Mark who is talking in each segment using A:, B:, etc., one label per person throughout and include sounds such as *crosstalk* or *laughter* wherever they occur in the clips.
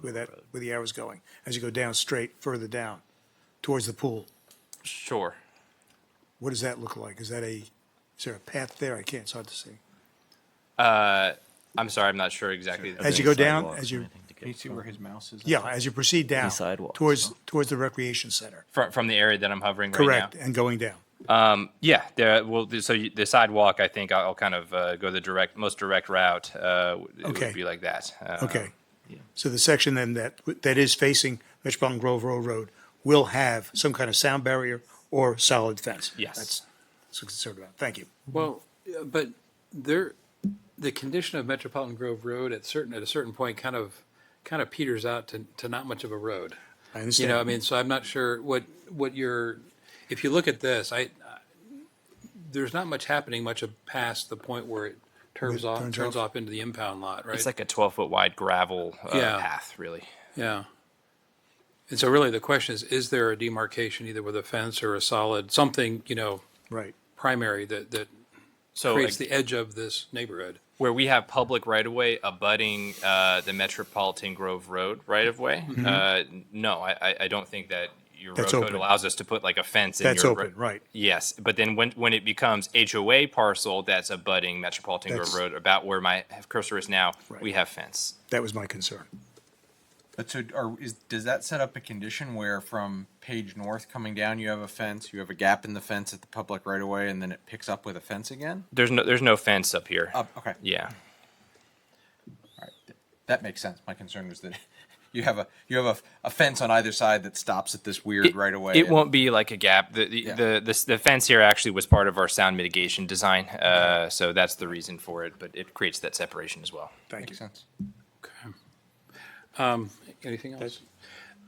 A: where that, where the arrow's going, as you go down straight, further down, towards the pool.
B: Sure.
A: What does that look like? Is that a, is there a path there? I can't, it's hard to see.
B: I'm sorry, I'm not sure exactly. the-
A: As you go down, as you,
C: Can you see where his mouse is?
A: yeah, as you proceed down.
D: sidewalks,
A: Towards, towards the recreation center.
B: From, from the area that I'm hovering right
A: Correct,
B: now.
A: and going down.
B: Yeah, there, well, so you- the sidewalk, I think I'll kind of uh, go the direct, most direct route. uh, w- It
A: Okay.
B: would be like that. Uh,
A: Okay. So the section then that, that is facing Metropolitan Grove Row Road will have some kind of sound barrier or solid fence?
B: Yes.
A: That's, that's what I'm concerned about. Thank you.
E: Well, yeah, but there, the condition of Metropolitan Grove Road at certain, at a certain point kind of, kind of peters out to, to not much of a road.
A: I
E: You
A: understand.
E: know, I mean, so I'm not sure what, what your, if you look at this, I, there's not much happening much of past the point where it turns
A: It
E: off,
A: turns
E: turns
A: off.
E: off into the impound lot, right?
B: It's like a 12 foot wide gravel uh,
E: Yeah.
B: path, really.
E: Yeah. And so really the question is, is there a demarcation either with a fence or a solid, something, you know,
A: Right.
E: primary that, that
B: So
E: creates
B: ag-
E: the edge of this neighborhood?
B: where we have public right of way abutting uh, the Metropolitan Grove Road right of way. Uh, no, I, I- I don't think that your
A: Mm-hmm. That's
B: road
A: open.
B: code allows us to put like a fence.
A: That's
B: in your ro-
A: open, right.
B: Yes, but then when when it becomes HOA parcel, that's abutting Metropolitan Grove
A: That's-
B: Road. About where my cursor is now, we
A: Right.
B: have fence.
A: That was my concern.
C: But so, are, is, does that set up a condition where from Page North coming down, you have a fence, you have a gap in the fence at the public right of way, and then it picks up with a fence again?
B: There's no there's no fence up here.
C: Up, okay.
B: Yeah.
C: All right. Th- That makes sense. My concern was that *laughs* you have a, you have a, a fence on either side that stops at this weird right of way.
B: It
C: and-
B: won't be like a gap. The the,
C: Yeah.
B: the the the fence here actually was part of our sound mitigation design, uh, so that's the reason for it. But it creates that separation as well.
A: Thank you.
C: Makes sense.
E: Anything else?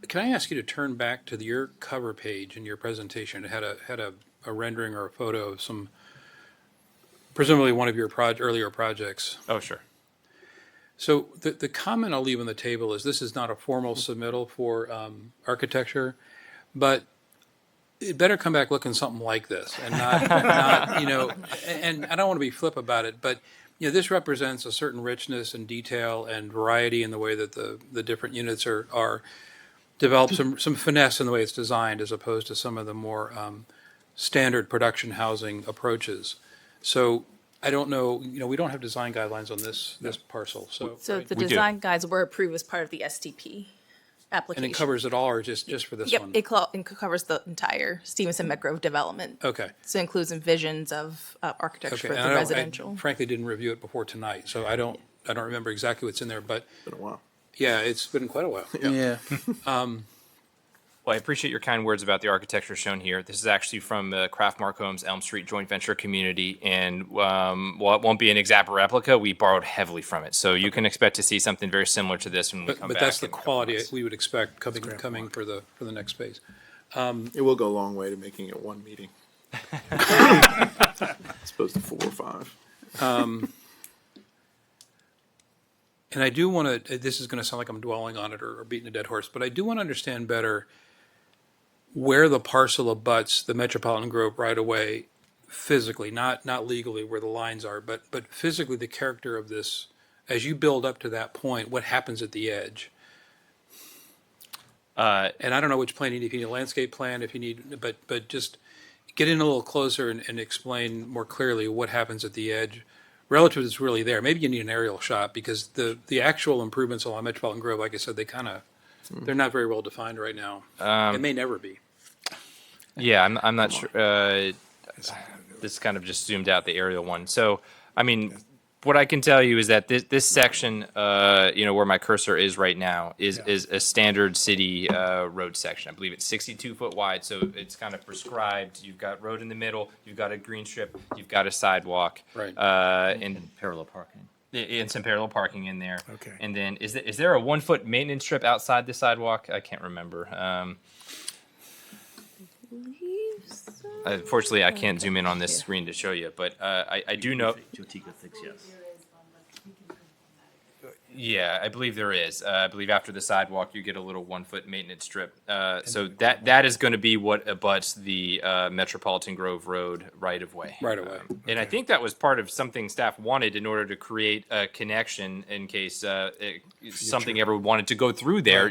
E: Can I ask you to turn back to the- your cover page in your presentation? It had a, had a, a rendering or a photo of some, presumably one of your proj, earlier projects.
B: Oh sure.
E: So the, the comment I'll leave on the table is this is not a formal submittal for um, architecture, but it better come back looking something like this and not, *laughs* not you know, and, and I don't want to be flip about it, but you know, this represents a certain richness and detail and variety in the way that the, the different units are, are developed, some, some finesse in the way it's designed as opposed to some of the more um, standard production housing approaches. So I don't know, you know, we don't have design guidelines on this, this parcel, so.
F: So
E: right?
F: the
B: We do.
F: design guides were approved as part of the STP application.
E: And it covers it all or just, just for this
F: Yep,
E: one?
F: it clo- it covers the entire Stevenson Metgrove development.
E: Okay.
F: So it includes envisions of uh, architecture
E: Oh. Okay. And
F: for
E: I
F: the
E: don't- I
F: residential.
E: Frankly, didn't review it before tonight, so I don't, I don't remember exactly what's in there, but. Been a while. Yeah, it's been quite a while.
D: Yeah.
B: Well, I appreciate your kind words about the architecture shown here. This is actually from the Kraft Mark Homes Elm Street joint venture community, and um, while it won't be an exact replica, we borrowed heavily from it. So you can expect to see something very similar to this when we
E: But,
B: come
E: but
B: back.
E: that's the
B: in a couple
E: quality
B: months.
E: we would expect coming, coming for the, for the next phase.
G: It will go a long way to making it one meeting. As opposed to four or five.
E: And I do want to, uh, this is going to sound like I'm dwelling on it or, or beating a dead horse, but I do want to understand better where the parcel abuts the Metropolitan Grove right away physically, not, not legally where the lines are, but, but physically the character of this, as you build up to that point, what happens at the edge? Uh, and I don't know which plan you need, if you need a landscape plan, if you need, but, but just get in a little closer and, and explain more clearly what happens at the edge relative that's really there. Maybe you need an aerial shot because the, the actual improvements along Metropolitan Grove, like I said, they kind of, they're not very well defined right now. It may never be.
B: Yeah, I'm, I'm not sure. Uh, this kind of just zoomed out the aerial one. So, I mean, what I can tell you is that this this section, uh, you know, where my cursor is right now, is is a standard city uh, road section. I believe it's 62 foot wide, so it's kind of prescribed. You've got road in the middle, you've got a green strip, you've got a sidewalk,
E: Right.
B: Uh, and
D: Parallel parking.
B: i- and some parallel parking in there.
A: Okay.
B: And then is there, is there a one foot maintenance strip outside the sidewalk? I can't remember. Um, Unfortunately, Uh, I can't zoom in on this screen to show you, but uh, I, I do know.
D: Jotika thinks yes.
B: Yeah, I believe there is. Uh, I believe after the sidewalk, you get a little one foot maintenance strip. Uh, so that that is going to be what abuts the uh, Metropolitan Grove Road right of way.
E: Right away.
B: And I think that was part of something staff wanted in order to create a connection in case uh, it, something ever wanted to go through there.